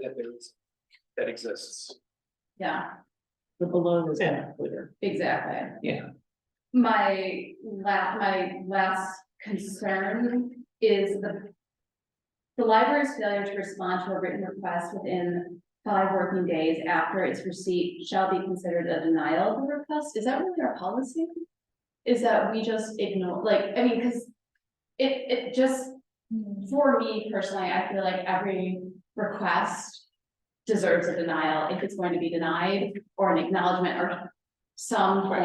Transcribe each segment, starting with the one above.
that there is, that exists. yeah, The balloon is Yeah. kind of clear. exactly. Yeah. My la- my last concern is the. The library's failure to respond to a written request within five working days after its receipt shall be considered a denial of the request, is that really our policy? Is that we just ignore, like, I mean, cause. It it just, for me personally, I feel like every request. Deserves a denial if it's going to be denied or an acknowledgement or some Right.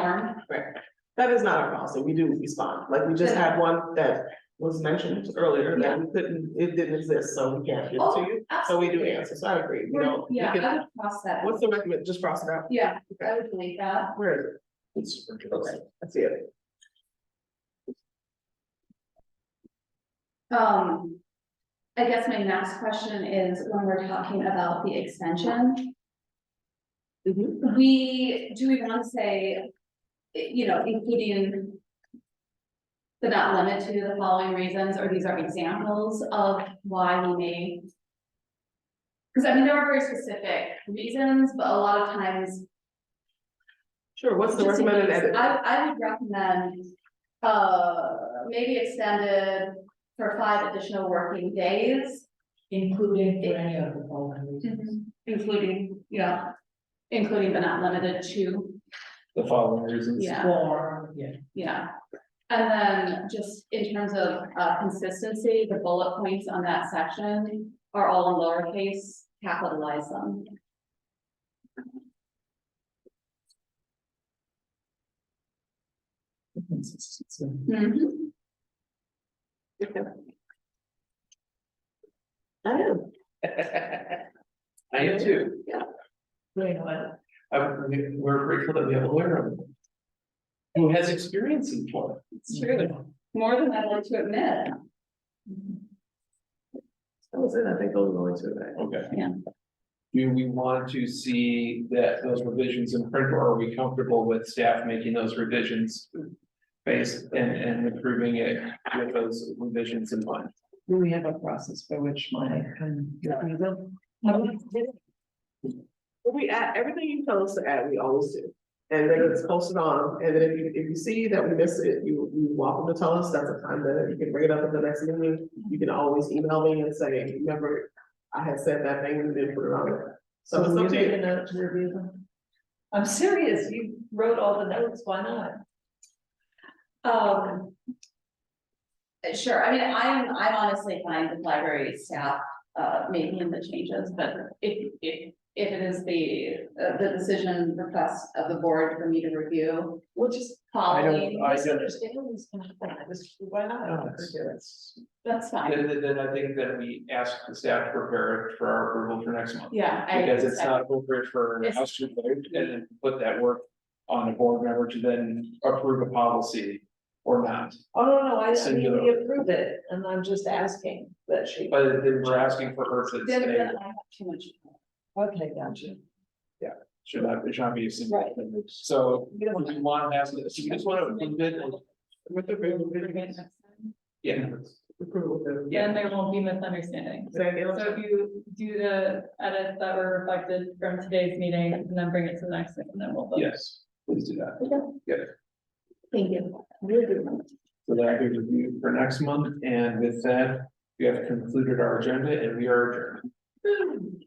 form. That is not our policy, we do respond, like, we just Yeah. had one that was mentioned earlier, that we couldn't, it didn't exist, so we can't give it to you. So we do Absolutely. answer, so I agree, you We're- know. we Yeah, can- I would cross that. out. What's the recommend, just cross it out, Yeah, I would delete that. where is it? It's Okay, that's it. Um, I guess my next question is when we're talking about the extension, Mhm. we, do we want to say, eh, you know, including but not limit to the following reasons, or these are examples of why we may because I mean, there are very specific reasons, but a lot of times Sure, what's the Just in recommended case, edit? I, I would recommend, uh, maybe extended for five additional working days. Including for any of the following Mm-hmm. reasons. Including, yeah, including but not limited to, The following reasons. yeah, For, yeah, yeah. And then just in terms of, uh, consistency, the bullet points on that section are all in lowercase, capitalize them. Mm-hmm. I am, I am too. great, well, I- we- we're grateful that we have a lawyer who has experience in Florida. It's true, more than I'd like to admit. Mm-hmm. that was it, I think those were the only two, right? Okay. Yeah. Do we want to see that those revisions in print, or are we comfortable with staff making those revisions? Based and, and approving it with those revisions in mind? do we have a process by which my, um, yeah. We add, everything you tell us to add, we always do. And then it's posted on, and then if you, if you see that we miss it, you, you welcome to tell us, that's a time that you can bring it up at the next meeting. You can always email me and say, remember, I had said that thing and didn't put it on there. So it's up to you. I'm serious, you wrote all the notes, why not? Um. Sure, I mean, I'm, I'm honestly fine with library staff, uh, making the changes, but if, if, if it is the, uh, the decision request of the board for me to review, which is following, I don't- Misunderstandings can happen, I just, why not? that's fine, Then, then- then I think that we ask the staff to prepare it for our approval for next month. yeah. I Because it's accept- not appropriate for It's- us to vote and then put that work on a board member to then approve a policy or not. Oh, no, no, I, I mean, Singular. we approve it, and I'm just asking that she, But then we're asking for her to Then, say, then I have too much. okay, gotcha. should not, it should not be a single. Right. So we want to ask, so you just want to approve it and- With the room, with the- yeah. approval, with the- And there won't be misunderstandings. Is that So it? if you do the edits that were reflected from today's meeting and then bring it to the next one, then we'll vote. Yes, please do that. Thank you. So that'll be reviewed for next month. And with that, we have concluded our agenda and we are adjourned.